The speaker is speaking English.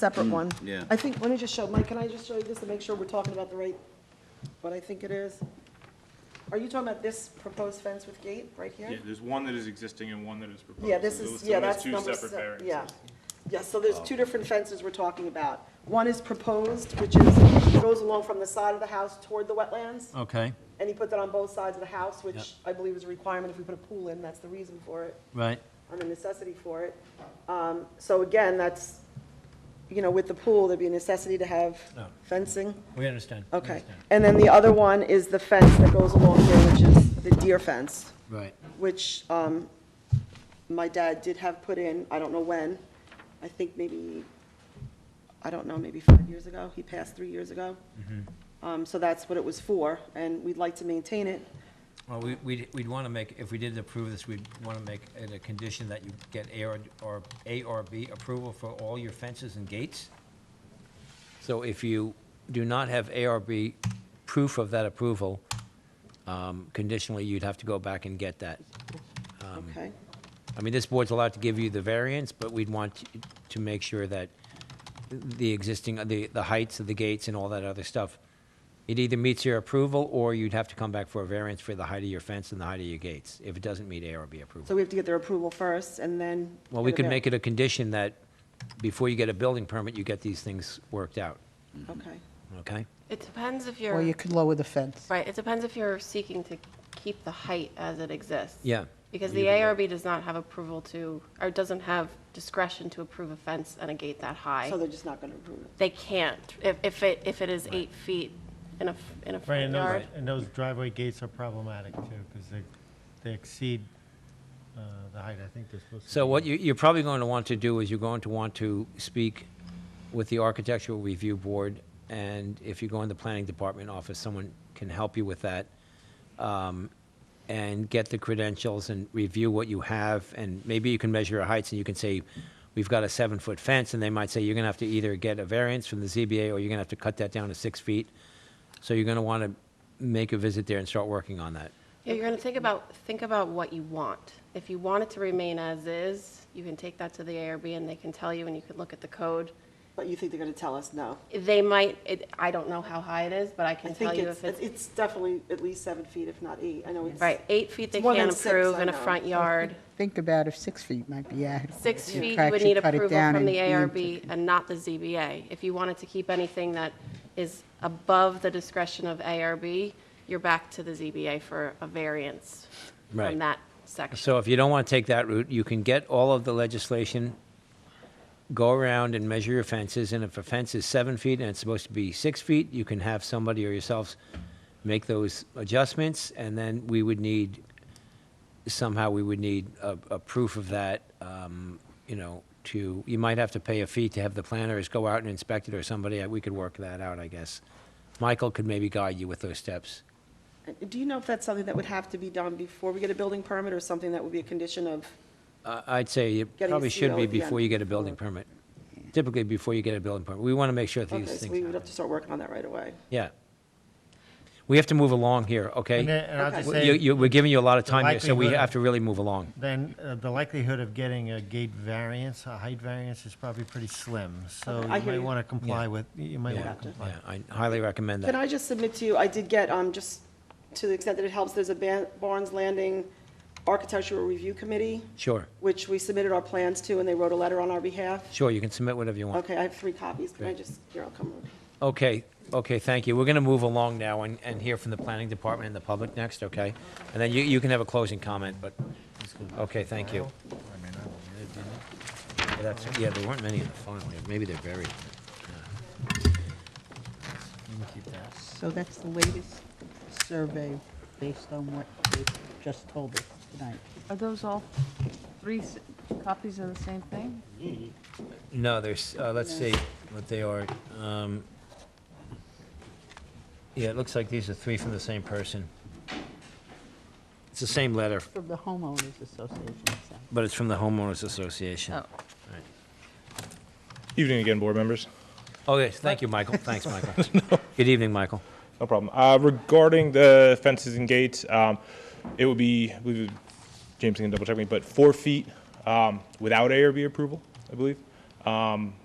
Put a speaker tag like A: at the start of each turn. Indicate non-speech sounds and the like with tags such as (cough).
A: separate one.
B: yeah.
A: I think, let me just show, Mike, can I just show you this to make sure we're talking about the right, what I think it is? Are you talking about this proposed fence with gate right
C: Yeah,
A: here?
C: there's one that is existing and one that is proposed.
A: Yeah, this
C: So
A: is,
C: those-
A: yeah,
C: so there's
A: that's
C: two
A: number
C: separate
A: seven.
C: variances.
A: Yeah. Yeah, so there's two different fences we're talking about. One is proposed, which is, goes along from the side of the house toward the wetlands.
C: Oh.
D: Okay,
A: And he put that on both sides of the house,
D: Yeah.
A: which I believe is a requirement if we put a pool in, that's the reason for it,
D: right.
A: or the necessity for it. Um, So again, that's, you know, with the pool, there'd be a necessity to have
D: No.
A: fencing.
D: We understand. we
A: Okay.
D: Oh. understand.
A: And then the other one is the fence that goes along here, which is the deer fence,
D: Right.
A: which um, my dad did have put in, I don't know when. I think maybe, I don't know, maybe five years ago. He passed three years ago.
D: Mm-hmm.
A: Um, So that's what it was for, and we'd like to maintain it.
D: Well, we, we'd, we'd want to make, if we did approve this, we'd want to make it a condition that you get A or, or A or B approval for all your fences and gates. So if you do not have A or B proof of that approval, um, conditionally, you'd have to go back and get that. Um,
A: Okay,
D: I mean, this board's allowed to give you the variance, but we'd want to- to make sure that the existing, the, the heights of the gates and all that other stuff, it either meets your approval, or you'd have to come back for a variance for the height of your fence and the height of your gates, if it doesn't meet A or B
A: so
D: approval.
A: we have to get their approval first, and then.
D: Well, we could make it a condition that before you get a building permit, you get these things worked out,
A: Okay,
D: okay?
E: It depends if
F: Or you
E: you're,
F: could lower the fence.
E: right, it depends if you're seeking to keep the height as it exists.
D: Yeah.
E: Because
D: You
E: the
D: can do
E: ARB does not have approval to, or doesn't have discretion to approve a fence and a gate that high.
A: so they're just not going to approve it.
E: They can't, if, if it, if it is eight feet in a, f- in a
G: Right,
E: front
G: and those,
E: yard.
G: and those driveway gates are problematic too, because they, they exceed uh, the height, I think they're supposed to.
D: So
G: be.
D: what you, you're probably going to want to do is you're going to want to speak with the Architectural Review Board, and if you go in the Planning Department office, someone can help you with that, um, and get the credentials and review what you have, and maybe you can measure your heights, and you can say, we've got a seven-foot fence, and they might say, you're going to have to either get a variance from the ZBA, or you're going to have to cut that down to six feet. So you're going to want to make a visit there and start working on that.
E: Yeah, You're going to think about, think about what you want. If you want it to remain as is, you can take that to the ARB and they can tell you and you can look at the code.
A: But you think they're going to tell us no?
E: They might, it, I don't know how high it is, but I
A: I
E: can tell
A: think
E: you if
A: it's,
E: it's
A: it's definitely at least seven feet, if not eight. I know it's.
E: Right, eight feet they
A: It's more
E: can't
A: than six,
E: approve
A: I
E: in a
A: know. (laughs)
E: front yard.
F: Think about if six feet might be added.
E: Six
F: You
E: feet
F: could
E: would
F: actually
E: need
F: cut it
E: approval
F: down
E: from
F: and
E: the
F: you need to-
E: ARB and not the ZBA. If you wanted to keep anything that is above the discretion of ARB, you're back to the ZBA for a variance
D: Right.
E: from that section.
D: So if you don't want to take that route, you can get all of the legislation, go around and measure your fences, and if a fence is seven feet and it's supposed to be six feet, you can have somebody or yourselves make those adjustments, and then we would need, somehow we would need a, a proof of that, um, you know, to, you might have to pay a fee to have the planners go out and inspect it or somebody, uh, we could work that out, I guess. Michael could maybe guide you with those steps.
A: Do you know if that's something that would have to be done before we get a building permit or something that would be a condition of?
D: I- I'd say it
A: Getting a
D: probably should
A: CO
D: be
A: at the end.
D: before you get a building permit. Typically, before you get a building permit. We want to make sure
A: Okay,
D: these
A: so
D: things
A: we would
D: happen.
A: have to start working on that right away.
D: Yeah. We have to move along here,
G: And
D: okay?
G: then- and I'll
A: Okay.
G: just
A: Well,
D: You,
G: say,
D: you, we're giving you a lot of
G: The
D: time here, so we
G: likelihood-
D: have to really move along.
G: then uh, the likelihood of getting a gate variance, a height variance is probably pretty slim. So
A: Okay,
G: you
A: I hear
G: might
A: you.
G: want to comply
D: Yeah.
G: with, you might
D: Yeah.
G: want to comply.
D: Yeah, I highly recommend
A: Can
D: that.
A: I just submit to you, I did get, um, just to the extent that it helps, there's a Ban- Barnes Landing Architectural Review Committee,
D: Sure,
A: which we submitted our plans to, and they wrote a letter on our behalf.
D: sure, you can submit whatever you want.
A: Okay, I have three copies. Can I just, here, I'll come over.
D: Okay, okay, thank you. We're going to move along now and, and hear from the planning department and the public next, okay? And then you, you can have a closing comment, but, okay, thank you. Yeah, That's, yeah, there weren't many in the file. Maybe they're buried.
F: So that's the latest survey based on what they just told us tonight.
H: Are those all three s- copies of the same thing?
D: No, there's, uh, let's see what they are. Um, Yeah, it looks like these are three from the same person. It's the same letter,
F: From the homeowners association, so.
D: but it's from the homeowners association.
H: Oh.
D: Right.
C: Evening again, board members.
D: Oh, yes, thank you, Michael. Thanks, Michael. Good evening, Michael.
C: No problem. Uh, regarding the fences and gates, um, it would be, I believe, James can double check me, but four feet, um, without ARB approval, I believe. Um,